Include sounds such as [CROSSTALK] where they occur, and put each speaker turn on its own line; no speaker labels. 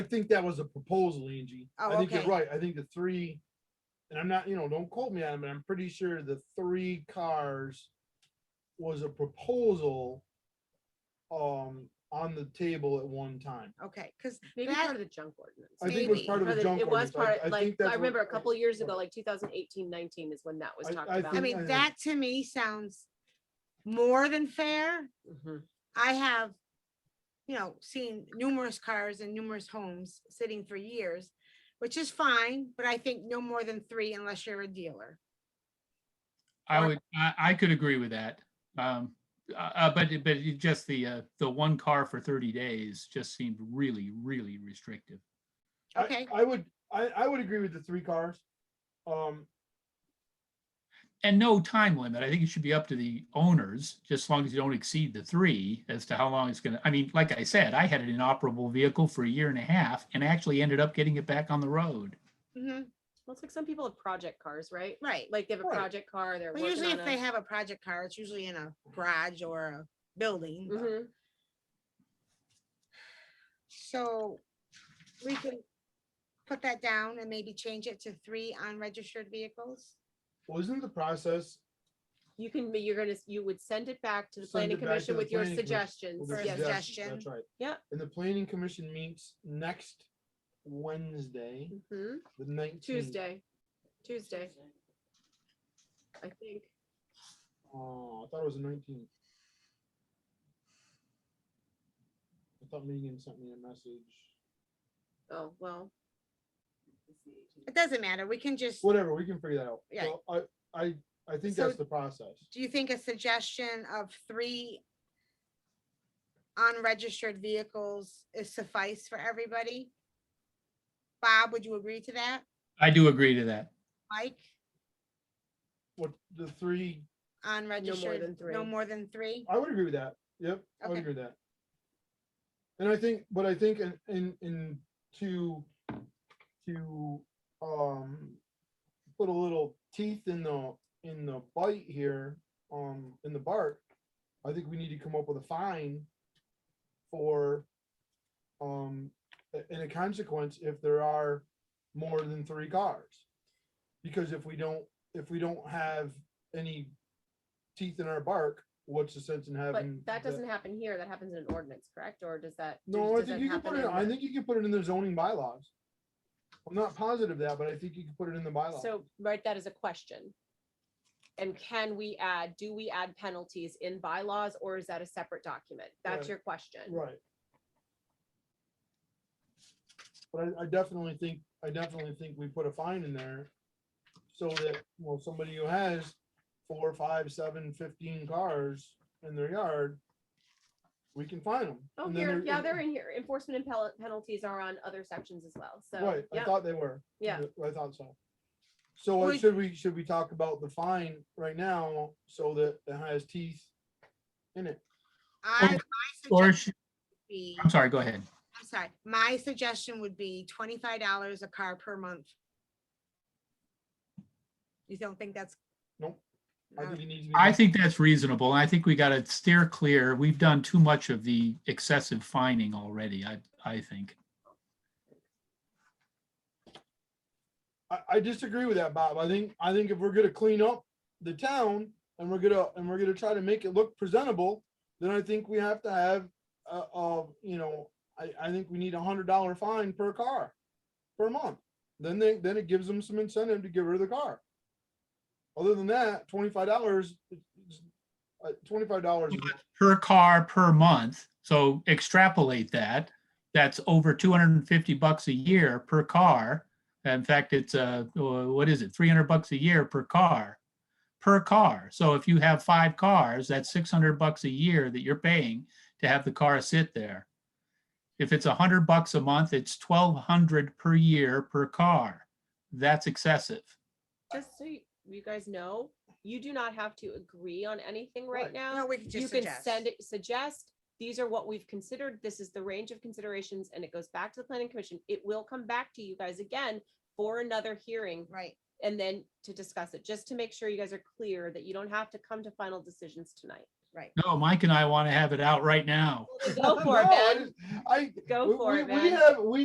I think that was a proposal, Angie.
Oh,
I think you're
okay.
right. I think the three, and I'm not, you know, don't quote me on it, but I'm pretty sure the three cars was a proposal um, on the table at one time.
Okay, because
Maybe
That-
part of the junk ordinance.
I think it was
Maybe.
part of
Part
the
of the-
junk
It was
ordinance.
part,
I- I
like,
think that's
I remember
what-
a couple years ago, like 2018, 19 is when that was
I-
talked
I
about.
I
think
mean,
I-
that to me sounds more than fair.
Mhm.
I have, you know, seen numerous cars and numerous homes sitting for years, which is fine, but I think no more than three unless you're a dealer.
I
Or-
would, I, I could agree with that. Um, uh, uh, but, it- but it just the, uh, the one car for thirty days just seemed really, really restrictive.
I-
Okay.
I would, I, I would agree with the three cars. Um,
And no time limit. I think it should be up to the owners, just as long as you don't exceed the three as to how long it's gonna, I mean, like I said, I had an inoperable vehicle for a year and a half and actually ended up getting it back on the road.
mhm,
Well, it's like some people have project cars, right?
Right.
Like they have a
Right.
project car, they're
But
working
usually
on
if they
a.
have a project car, it's usually in a garage or a building. but-
Mhm.
So we can put that down and maybe change it to three unregistered vehicles?
wasn't the process,
You can, you're gonna, you would send it back to the
Send
planning
it back to
commission
the
with your
planning commission.
suggestions.
with the
For a
Yes.
suggestion.
That's right.
Yeah.
And the planning commission meets next Wednesday,
Mhm.
the nineteenth.
Tuesday, Tuesday. I think,
Oh, I thought it was the nineteenth. I thought Megan sent me a message.
oh, well,
It doesn't matter. We can just, do
Whatever, we can figure that out.
Yeah.
Well, I, I, I think
So-
that's the process.
you think a suggestion of three unregistered vehicles is suffice for everybody? Bob, would you agree to that?
I do agree to that.
Mike,
What, the three,
unregistered,
than
no
three.
more than three?
I would agree with that. Yep, I would
Okay.
agree with that. And I think, but I think in, in, in to, to, um, put a little teeth in the, in the bite here, um, in the bark, I think we need to come up with a fine for, um, a- and a consequence if there are more than three cars. Because if we don't, if we don't have any teeth in our bark, what's the sense in
but
having?
that doesn't happen here. That happens in an ordinance, correct? Or does that?
No, I
does
think
that
you can
happen
put it,
in
I
the-
think you can put it in the zoning bylaws. I'm not positive that, but I think you can put it in the bylaws.
So write that as a question. And can we add, do we add penalties in bylaws or is that a separate document?
Right.
That's your question.
Right. But I, I definitely think, I definitely think we put a fine in there. So that, well, somebody who has four, five, seven, fifteen cars in their yard. We can fine them.
Oh, here, yeah, they're in here. Enforcement and pel- penalties are on other sections as well. So,
Right, I
yeah,
thought they were.
yeah.
I thought so. So uh,
Would-
should we, should we talk about the fine right now so that it has teeth in it?
I, my
Or,
suggestion
sh-
would be,
I'm sorry, go ahead.
I'm sorry, my suggestion would be twenty-five dollars a car per month. You don't think that's?
Nope. I
Uh,
think it needs to be.
I think that's reasonable. I think we got to steer clear. We've done too much of the excessive fining already, I, I think.
I, I disagree with that, Bob. I think, I think if we're gonna clean up the town and we're gonna, and we're gonna try to make it look presentable, then I think we have to have, uh, uh, you know, I, I think we need a hundred dollar fine per car, per month. Then they, then it gives them some incentive to get rid of the car. Other than that, twenty-five dollars, uh, twenty-five dollars.
Per car per month, so extrapolate that, that's over two hundred and fifty bucks a year per car. In fact, it's, uh, wha- what is it, three hundred bucks a year per car? Per car. So if you have five cars, that's six hundred bucks a year that you're paying to have the car sit there. If it's a hundred bucks a month, it's twelve hundred per year per car. That's excessive.
just so you- you guys know, you do not have to agree on anything right
Right.
now.
No, we can
You
just
can
suggest.
send it, suggest, these are what we've considered. This is the range of considerations and it goes back to the planning commission. It will come back to you guys again for another hearing
Right,
and then to discuss it, just to make sure you guys are clear that you don't have to come to final
[LAUGHS]
decisions tonight.
right.
No, Mike and I want to have it out right now.
Go for
[LAUGHS] No,
it,
I
Ben.
just- I.
Go
we-
for
we-
it,
We
Ben.
have, we